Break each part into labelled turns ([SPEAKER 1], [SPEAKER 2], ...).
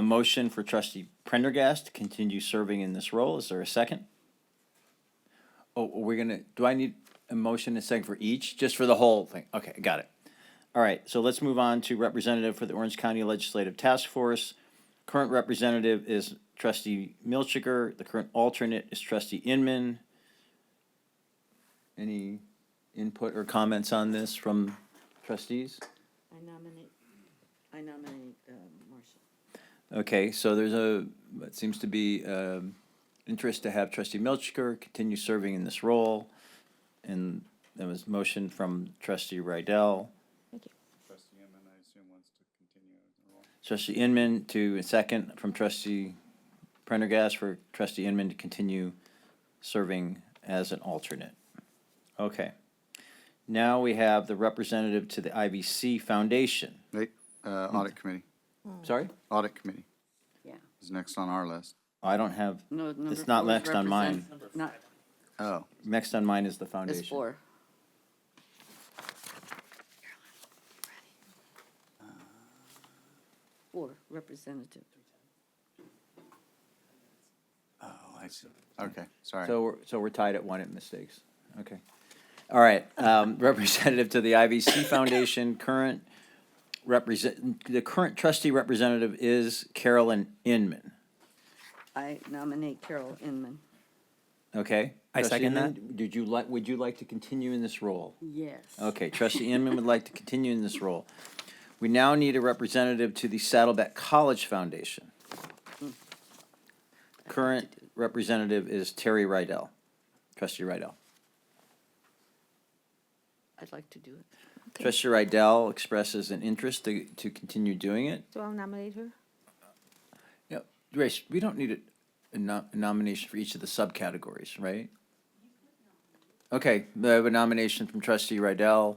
[SPEAKER 1] A motion for trustee Prendergast to continue serving in this role. Is there a second? Oh, we're gonna, do I need a motion and second for each, just for the whole thing? Okay, got it. All right, so let's move on to representative for the Orange County Legislative Task Force. Current representative is trustee Milchiker. The current alternate is trustee Inman. Any input or comments on this from trustees?
[SPEAKER 2] I nominate, I nominate um, Marshall.
[SPEAKER 1] Okay, so there's a, it seems to be um, interest to have trustee Milchker continue serving in this role. And that was motion from trustee Rydell,
[SPEAKER 3] Trustee Inman, I assume, wants to continue the role.
[SPEAKER 1] trustee Inman to a second from trustee Prendergast for trustee Inman to continue serving as an alternate. Okay. Now we have the representative to the IVC Foundation.
[SPEAKER 3] Right, uh, audit committee,
[SPEAKER 1] Sorry?
[SPEAKER 3] audit committee
[SPEAKER 2] Yeah.
[SPEAKER 3] is next on our list.
[SPEAKER 1] I don't have,
[SPEAKER 2] No, number
[SPEAKER 1] It's not
[SPEAKER 2] four is
[SPEAKER 1] next on mine.
[SPEAKER 2] represent- Not,
[SPEAKER 3] Oh,
[SPEAKER 1] next on mine is the
[SPEAKER 2] it's
[SPEAKER 1] foundation.
[SPEAKER 2] four. Four, representative.
[SPEAKER 3] oh, I see. Okay, sorry.
[SPEAKER 1] So, we're- so we're tied at one at mistakes. Okay. All right, um, representative to the IVC Foundation, current represent, the current trustee representative is Carolyn Inman,
[SPEAKER 2] I nominate Carol Inman.
[SPEAKER 1] okay?
[SPEAKER 4] I
[SPEAKER 1] Trustee
[SPEAKER 4] second
[SPEAKER 1] Inman, Did you like, would you like to continue in this role?
[SPEAKER 2] Yes.
[SPEAKER 1] Okay, trustee Inman would like to continue in this role. We now need a representative to the Saddleback College Foundation. Current representative is Terry Rydell, trustee Rydell.
[SPEAKER 2] I'd like to do it.
[SPEAKER 5] Okay.
[SPEAKER 1] Trustee Rydell expresses an interest to, to continue doing it.
[SPEAKER 5] So I'll nominate her?
[SPEAKER 1] Yeah, Grace, we don't need a- a nom- nomination for each of the subcategories, right? Okay, I have a nomination from trustee Rydell,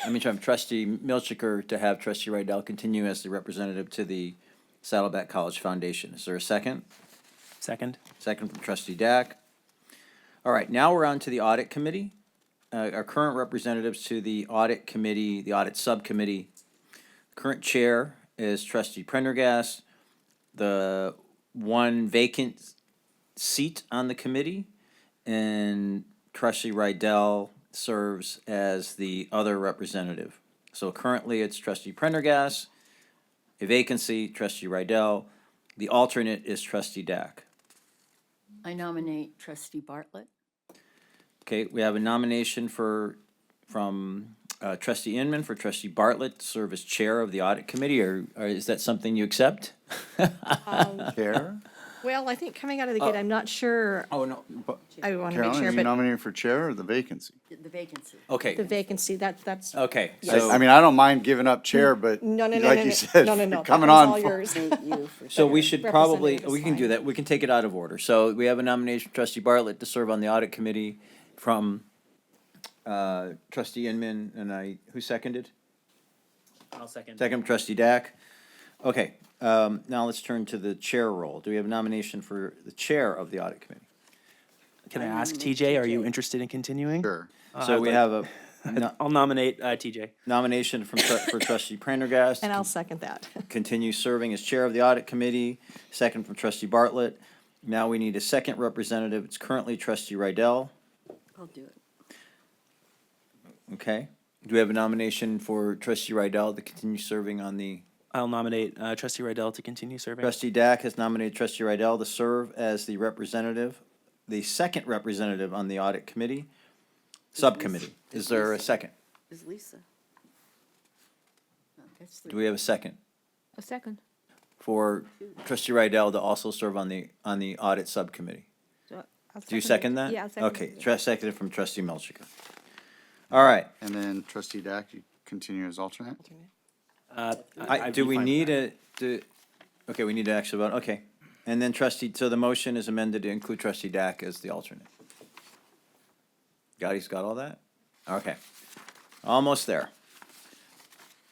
[SPEAKER 1] I mean, from trustee Milchiker to have trustee Rydell continue as the representative to the Saddleback College Foundation. Is there a second?
[SPEAKER 4] Second.
[SPEAKER 1] Second from trustee Dack. All right, now we're on to the audit committee. Uh, our current representatives to the audit committee, the audit subcommittee. Current chair is trustee Prendergast. The one vacant seat on the committee and trustee Rydell serves as the other representative. So currently it's trustee Prendergast, a vacancy, trustee Rydell. The alternate is trustee Dack.
[SPEAKER 6] I nominate trustee Bartlett.
[SPEAKER 1] Okay, we have a nomination for, from uh, trustee Inman for trustee Bartlett to serve as chair of the audit committee, or, or is that something you accept?
[SPEAKER 3] Chair?
[SPEAKER 5] Well, I think coming out of the gate, I'm not sure,
[SPEAKER 1] Oh, no.
[SPEAKER 5] I want
[SPEAKER 3] Carolyn,
[SPEAKER 5] to make
[SPEAKER 3] are
[SPEAKER 5] sure,
[SPEAKER 3] you
[SPEAKER 5] but
[SPEAKER 3] nominated for chair or the vacancy?
[SPEAKER 6] The vacancy.
[SPEAKER 5] the
[SPEAKER 1] Okay,
[SPEAKER 5] vacancy, that, that's, no,
[SPEAKER 1] okay,
[SPEAKER 3] I- I
[SPEAKER 1] so,
[SPEAKER 3] mean, I don't mind giving up chair, but
[SPEAKER 5] no, no, no,
[SPEAKER 3] like
[SPEAKER 5] no,
[SPEAKER 3] you said,
[SPEAKER 5] no, no, no.
[SPEAKER 3] coming
[SPEAKER 5] that was
[SPEAKER 3] on.
[SPEAKER 5] all
[SPEAKER 3] full-
[SPEAKER 5] yours.
[SPEAKER 2] Nominate you for.
[SPEAKER 1] so we should probably,
[SPEAKER 5] Representative is
[SPEAKER 1] we can do
[SPEAKER 5] fine.
[SPEAKER 1] that, we can take it out of order. So we have a nomination, trustee Bartlett to serve on the audit committee from uh, trustee Inman, and I, who seconded?
[SPEAKER 4] I'll second.
[SPEAKER 1] Second, trustee Dack. Okay, um, now let's turn to the chair role. Do we have a nomination for the chair of the audit committee?
[SPEAKER 4] Can I ask TJ, are you interested in continuing?
[SPEAKER 3] Sure.
[SPEAKER 1] So
[SPEAKER 4] I'd
[SPEAKER 1] we
[SPEAKER 4] like-
[SPEAKER 1] have a no-
[SPEAKER 4] I'll nominate uh, TJ.
[SPEAKER 1] nomination from, tru- for trustee Prendergast.
[SPEAKER 5] And I'll
[SPEAKER 1] to
[SPEAKER 5] second that.
[SPEAKER 1] Continue serving as chair of the audit committee, second from trustee Bartlett. Now we need a second representative. It's currently trustee Rydell,
[SPEAKER 2] I'll do it.
[SPEAKER 1] okay? Do we have a nomination for trustee Rydell to continue serving on the,
[SPEAKER 4] I'll nominate uh, trustee Rydell to continue serving.
[SPEAKER 1] trustee Dack has nominated trustee Rydell to serve as the representative, the second representative on the audit committee, subcommittee. Is there a second?
[SPEAKER 2] Is Lisa?
[SPEAKER 6] Oh, That's
[SPEAKER 1] Do
[SPEAKER 6] the,
[SPEAKER 1] we have a second?
[SPEAKER 5] A second.
[SPEAKER 1] for trustee Rydell to also serve on the, on the audit subcommittee. Do you second that?
[SPEAKER 5] Yeah, I'll second
[SPEAKER 1] Okay,
[SPEAKER 5] it.
[SPEAKER 1] tra- seconded from trustee Melchica. All right,
[SPEAKER 3] And then trustee Dack, you continue as alternate?
[SPEAKER 4] Uh,
[SPEAKER 1] I,
[SPEAKER 4] I'd
[SPEAKER 1] do
[SPEAKER 4] be
[SPEAKER 1] we
[SPEAKER 4] fine with
[SPEAKER 1] need
[SPEAKER 4] that.
[SPEAKER 1] a, do, okay, we need to actually vote, okay. And then trustee, so the motion is amended to include trustee Dack as the alternate. Gotti's got all that? Okay, almost there.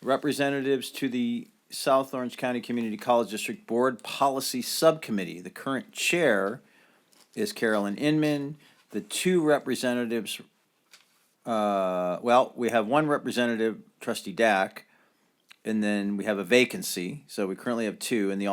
[SPEAKER 1] Representatives to the South Orange County Community College District Board Policy Subcommittee. The current chair is Carolyn Inman. The two representatives, uh, well, we have one representative, trustee Dack, and then we have a vacancy, so we currently have two, and the